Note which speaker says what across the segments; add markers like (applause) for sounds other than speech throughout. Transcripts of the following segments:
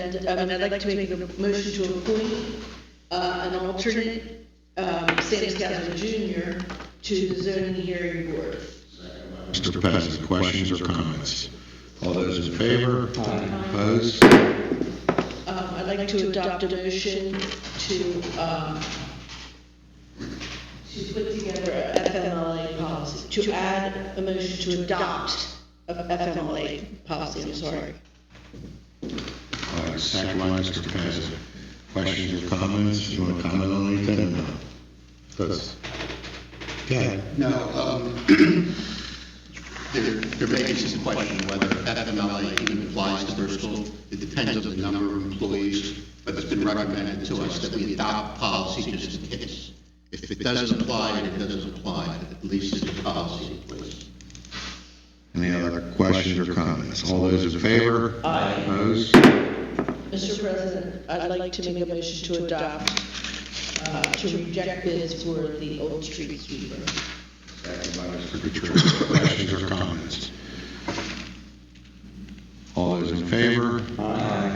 Speaker 1: And um, I'd like to make a motion to appoint uh, an alternate, um, Sam Scott Jr. to the zoning hearing board.
Speaker 2: Mr. Peasant, questions or comments? All those in favor? Opposed?
Speaker 1: Um, I'd like to adopt a motion to, um, to put together a FMLA policy, to add a motion to adopt a FMLA policy, I'm sorry.
Speaker 2: All right, second by Mr. Peasant. Questions or comments? You want to comment on anything or not? That's- Go ahead.
Speaker 3: No, um, (clears throat) there, there may be some question whether FMLA even applies to Bristol. It depends on the number of employees, but it's been recommended to us that we adopt policy just in case. If it doesn't apply, then it doesn't apply, at least it's a policy in place.
Speaker 2: Any other questions or comments? All those in favor? Opposed?
Speaker 1: Mr. President, I'd like to make a motion to adopt, uh, to reject bids for the Old Street sweeper.
Speaker 2: Second by Mr. Gutierrez. Questions or comments? All those in favor?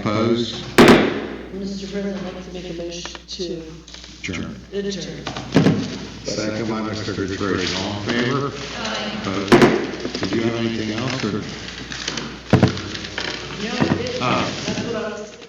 Speaker 2: Opposed?
Speaker 1: Mr. President, I'd like to make a motion to
Speaker 2: Adjourned.
Speaker 1: adjourn.
Speaker 2: Second by Mr. Gutierrez. All in favor? Opposed? Did you have anything else or?
Speaker 1: No, it is.
Speaker 2: Ah.
Speaker 1: That's what I was.